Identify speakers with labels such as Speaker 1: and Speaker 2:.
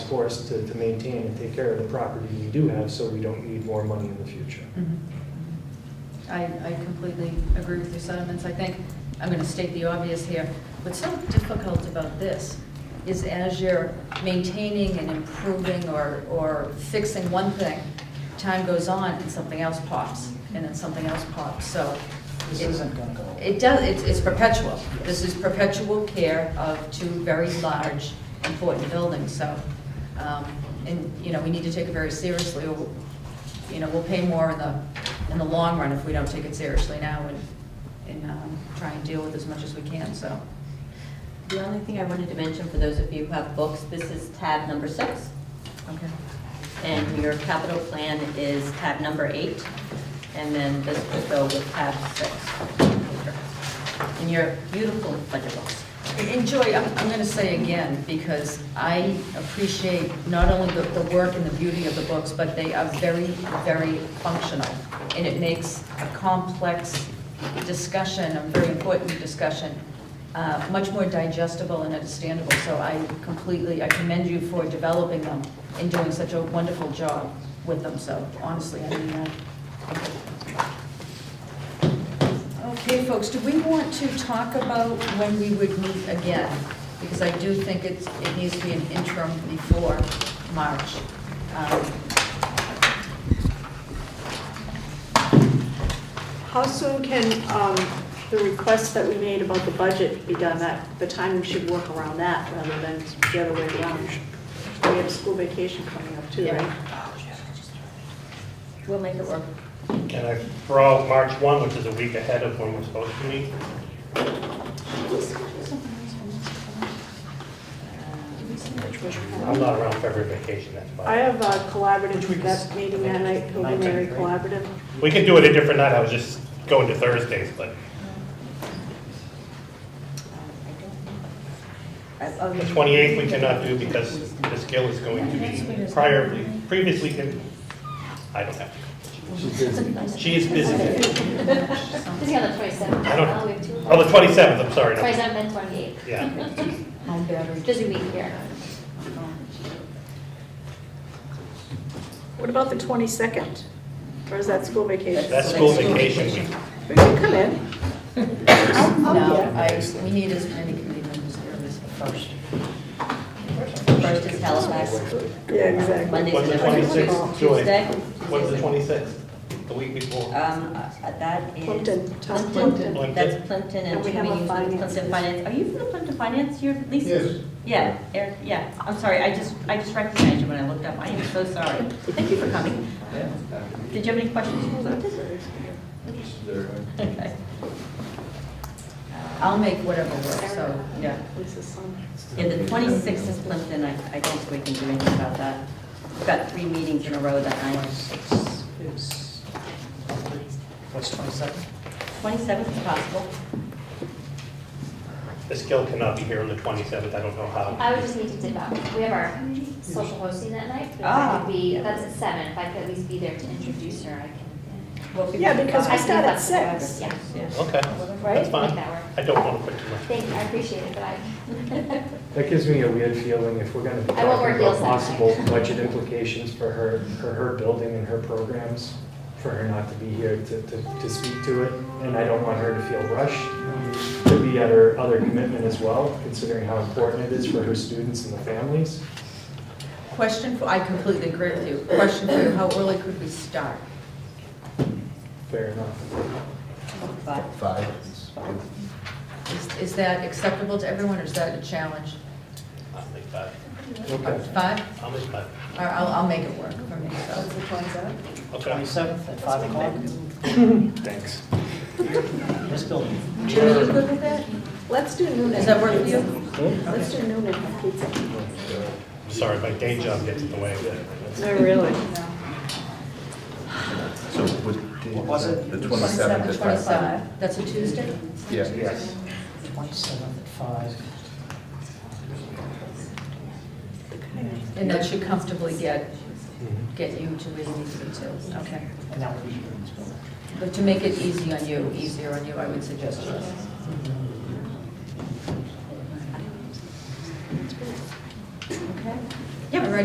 Speaker 1: for us to, to maintain and take care of the property we do have, so we don't need more money in the future.
Speaker 2: Mhm. I, Mm-hmm. I completely agree with your sentiments. I think, I'm going to state the obvious here. What's so difficult about this is as you're maintaining and improving or, or fixing one thing, time goes on and something else pops, and then something else pops, so.
Speaker 3: This
Speaker 2: it-
Speaker 3: isn't gonna go away.
Speaker 2: It does, it's, it's perpetual. This is perpetual care of two very large, important buildings, so, um, and, you know, we need to take it very seriously, or, you know, we'll pay more in the, in the long run if we don't take it seriously now and, and, um, try and deal with as much as we can, so.
Speaker 4: The only thing I wanted to mention for those of you who have books, this is tab number six,
Speaker 2: Okay.
Speaker 4: and your capital plan is tab number eight, and then this will go with tab six. And your beautiful budget books.
Speaker 2: And Joy, I'm, I'm gonna say again, because I appreciate not only the, the work and the beauty of the books, but they are very, very functional. And it makes a complex discussion, a very important discussion, uh, much more digestible and understandable. So I completely, I commend you for developing them and doing such a wonderful job with them, so honestly, I mean uh, that. Okay, folks, do we want to talk about when we would meet again? Because I do think it's, it needs to be an interim before March. Um,
Speaker 5: How soon can um, the request that we made about the budget be done? That, the timing should work around that rather than the other way around. We have school vacation coming up too, right?
Speaker 4: We'll make it work.
Speaker 6: And I brought March 1, which is a week ahead of when we're supposed to meet. I'm not around for every vacation, that's
Speaker 5: I
Speaker 6: why.
Speaker 5: have a
Speaker 3: Which
Speaker 5: collaborative,
Speaker 3: week is-
Speaker 5: that meeting that night, Pilgrim Mary
Speaker 3: Nineteenth, right?
Speaker 5: Collaborative.
Speaker 6: We could do it a different night, I was just going to Thursdays, but
Speaker 4: oh,
Speaker 6: the 28th we cannot do because Ms. Gill is going to be prior, previously, con- I don't have to. She is busy.
Speaker 7: Busy on the twenty-seventh.
Speaker 6: I don't- Oh, the 27th, I'm sorry. no.
Speaker 7: Twenty-seventh and twenty-eighth,
Speaker 6: Yeah,
Speaker 2: Home battery.
Speaker 7: busy week here.
Speaker 5: What about the 22nd? Or is that school vacation?
Speaker 6: that's school vacation week.
Speaker 5: We can come in.
Speaker 2: No, I, we need as many committee members here as first.
Speaker 4: First is Halifax,
Speaker 5: Yeah, exactly.
Speaker 4: Monday's
Speaker 6: When's the
Speaker 4: November
Speaker 6: 26th, Joy?
Speaker 4: Tuesday.
Speaker 6: When's the
Speaker 4: Tuesday's-
Speaker 6: 26th? The week before.
Speaker 4: Um, uh, that is.
Speaker 5: Plimpton, town
Speaker 4: Plimpton.
Speaker 6: Plimpton.
Speaker 4: That's Plimpton and
Speaker 5: And we
Speaker 4: two
Speaker 5: have a
Speaker 4: meetings with
Speaker 5: finance.
Speaker 4: Plimpton Finance. Are you from the Plimpton Finance, you're Lisa? Yes. Yeah, Eric, yeah, I'm sorry, I just, I just recognized you when I looked up, I am so sorry. Thank you for coming. Did you have any questions? Okay.
Speaker 2: I'll make whatever work, so, yeah.
Speaker 5: Lisa's son.
Speaker 4: Yeah, the 26th is Plimpton, I, I don't think we can do anything about that. We've got three meetings in a row that night.
Speaker 3: Is- What's 22nd?
Speaker 4: 27th is possible.
Speaker 6: Ms. Gill cannot be here on the 27th, I don't know how.
Speaker 7: I would just need to dip out. We have our social hosting that night, but if I
Speaker 4: Ah.
Speaker 7: could be, that's at seven, if I could at least be there to introduce her, I can,
Speaker 4: Well, if you-
Speaker 5: Yeah, because we
Speaker 7: I
Speaker 5: start at
Speaker 7: think that's-
Speaker 5: six.
Speaker 7: yeah.
Speaker 4: Yeah.
Speaker 6: Okay,
Speaker 5: Right?
Speaker 6: that's
Speaker 7: Make
Speaker 6: fine.
Speaker 7: that work.
Speaker 6: I don't want to put too much.
Speaker 7: Thank you, I appreciate it, but I,
Speaker 1: That gives me a weird feeling if we're gonna be
Speaker 7: I won't wear
Speaker 1: talking
Speaker 7: heels
Speaker 1: about
Speaker 7: that
Speaker 1: possible
Speaker 7: night.
Speaker 1: budget implications for her, for her building and her programs, for her not to be here to, to, to speak to it, and I don't want her to feel rushed to be at her other commitment as well, considering how important it is for her students and the families.
Speaker 2: Question for, I completely agree with you. Question for you, how early could we start?
Speaker 1: Fair enough.
Speaker 4: But
Speaker 8: Five.
Speaker 2: Is, is that acceptable to everyone, or is that a challenge?
Speaker 6: I'll make five.
Speaker 1: Okay.
Speaker 2: Five?
Speaker 6: I'll make five.
Speaker 2: Or I'll, I'll make it work for me, so.
Speaker 6: Okay.
Speaker 3: 27th at 5 o'clock?
Speaker 6: Thanks.
Speaker 3: This building.
Speaker 2: Jimmy, you good with that?
Speaker 5: Let's do noon.
Speaker 2: Does that work for you?
Speaker 5: Let's do noon and pizza.
Speaker 6: Sorry, my day job gets in the way. of that.
Speaker 5: No, really.
Speaker 8: So what day
Speaker 3: What was it?
Speaker 8: The twenty-seventh at five thirty.
Speaker 2: 25. That's a Tuesday?
Speaker 8: Yeah. Yes.
Speaker 3: 27th at 5.
Speaker 2: And that should comfortably get, get you to where you need to be too, okay.
Speaker 3: And that would be here in this building.
Speaker 2: But to make it easy on you, easier on you, I would suggest yes.